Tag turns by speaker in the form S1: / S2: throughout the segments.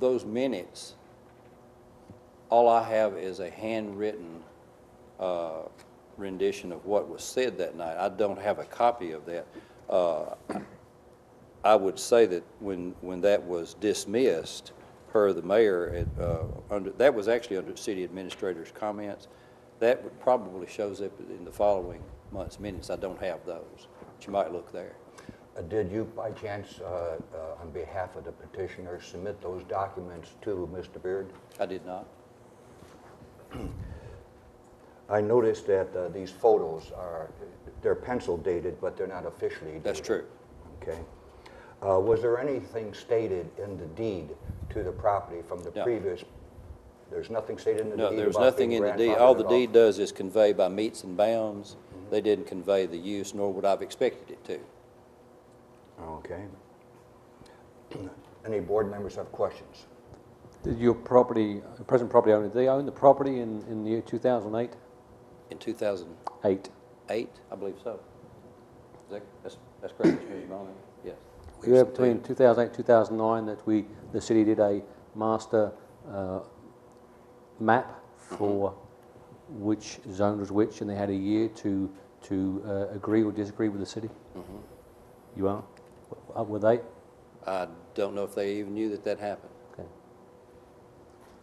S1: those minutes, all I have is a handwritten uh, rendition of what was said that night. I don't have a copy of that. Uh, I would say that when, when that was dismissed, per the mayor, it, uh, under, that was actually under city administrator's comments, that would probably shows up in the following month's minutes. I don't have those, but you might look there.
S2: Uh, Did you, by chance, uh, uh, on behalf of the petitioner, submit those documents to Mr. Beard?
S1: I did not.
S2: I noticed that uh, these photos are, they're pencil dated, but they're not officially dated.
S1: That's true.
S2: Okay. Uh, Was there anything stated in the deed to the property from the
S1: No.
S2: previous? There's nothing stated in the deed
S1: No,
S2: about being grandfathered
S1: there was nothing in the deed. All the
S2: at Mm-hmm.
S1: deed does is convey by meets and bounds. They didn't convey the use, nor would I've expected it to.
S2: Okay. Any board members have questions?
S3: Did your property, the present property owner, did they own the property in, in the year 2008?
S1: In 2008,
S3: Eight.
S1: I believe so. Is that, that's, that's correct, Mr. Bowman? Yes.
S3: We were between 2008 2009 that we, the city did a master uh, map for which zone was which, and they had a year to, to uh, agree or disagree with the city? You are? W- uh, Were they?
S1: I don't know if they even knew that that happened.
S3: Okay.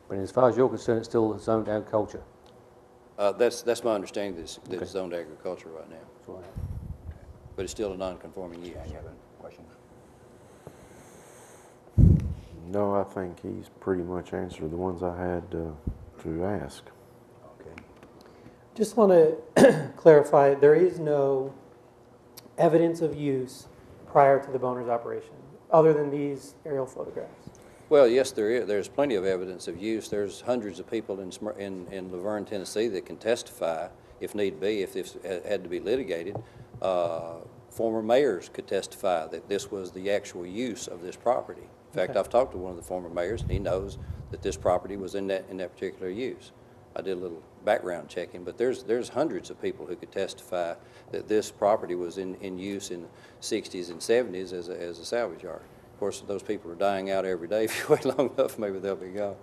S3: But as far as you're concerned, it's still zoned agriculture.
S1: Uh, that's, that's my understanding, that's,
S3: Okay.
S1: that's zoned agriculture right now,
S3: That's all I have.
S1: but it's still a non-conforming use.
S2: Any other questions?
S4: No, I think he's pretty much answered the ones I had uh, to ask.
S2: Okay.
S5: Just want to clarify, there is no evidence of use prior to the Boners operation, other than these aerial photographs.
S1: Well, yes, there is, there's plenty of evidence of use. There's hundreds of people in, Smyr- in, in Laverne, Tennessee that can testify, if need be, if this ha- had to be litigated. Uh, Former mayors could testify that this was the actual use of this property. In fact,
S5: Okay.
S1: I've talked to one of the former mayors, and he knows that this property was in that, in that particular use. I did a little background checking, but there's, there's hundreds of people who could testify that this property was in, in use in sixties and seventies as a, as a salvage yard. Of course, those people are dying out every day. If you wait long enough, maybe they'll be gone.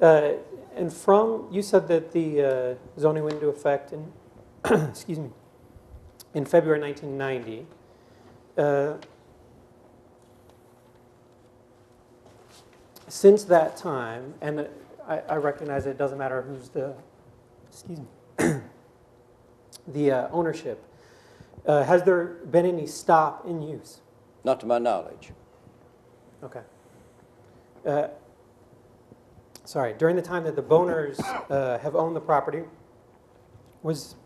S5: Uh, And from, you said that the uh, zoning went into effect in, excuse me, in February 1990. Uh, Since that time, and I I recognize it doesn't matter who's the, excuse me, the uh, ownership, uh, has there been any stop in use?
S1: Not to my knowledge.
S5: Okay. Uh, Sorry, during the time that the Boners uh, have owned the property, was,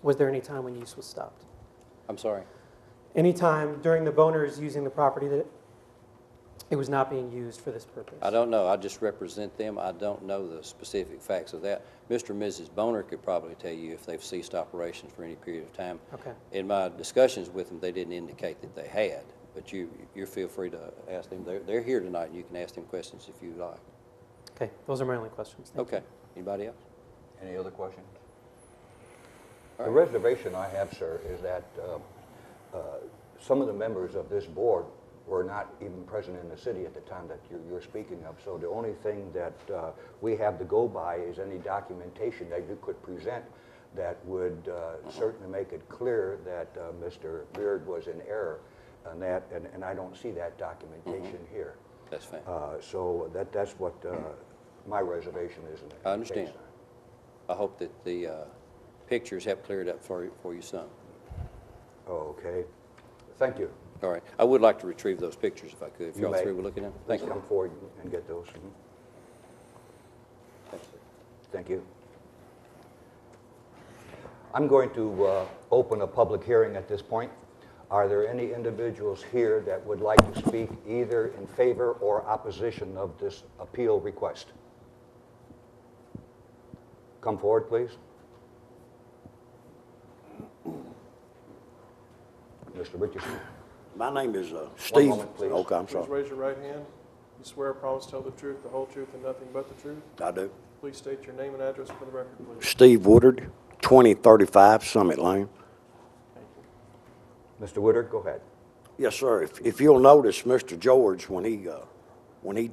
S5: was there any time when use was stopped?
S1: I'm sorry.
S5: Any time during the Boners using the property that it was not being used for this purpose?
S1: I don't know. I just represent them. I don't know the specific facts of that. Mr. and Mrs. Boner could probably tell you if they've ceased operations for any period of time.
S5: Okay,
S1: In my discussions with them, they didn't indicate that they had, but you, you feel free to ask them. They're, they're here tonight, and you can ask them questions if you like.
S5: okay, those are my only questions. Thank you.
S1: Okay, anybody else?
S2: Any other questions?
S1: All
S2: The
S1: right.
S2: reservation I have, sir, is that uh, uh, some of the members of this board were not even present in the city at the time that you're- you're speaking of. So the only thing that uh, we have to go by is any documentation that you could present that would uh, certainly make it clear that uh, Mr. Beard was in error on that, and and I don't see that documentation
S1: Mm-hmm.
S2: here.
S1: That's fine.
S2: Uh, So that, that's what uh, my reservation is. in- in
S1: I
S2: the
S1: understand.
S2: case.
S1: I hope that the uh, pictures have cleared up for, for you some.
S2: Oh, Okay. Thank you.
S1: All right, I would like to retrieve those pictures if I could, if
S2: You
S1: y'all
S2: may.
S1: three were looking at them.
S2: Please
S1: Thank you.
S2: come forward and get those. Mhm.
S1: Thank you.
S2: Thank you. I'm going to uh, open a public hearing at this point. Are there any individuals here that would like to speak either in favor or opposition of this appeal request? Come forward, please. Mr. Richardson.
S6: My name is uh, Steve.
S2: moment, please.
S6: Okay, I'm
S7: Please
S6: sorry.
S7: raise your right hand. You swear or promise to tell the truth, the whole truth, and nothing but the truth?
S6: I do.
S7: Please state your name and address for the record, please.
S6: Steve Woodard, 2035 Summit Lane.
S2: Mr. Woodard, go ahead.
S6: Yes, sir. If, if you'll notice, Mr. George, when he uh,
S2: when he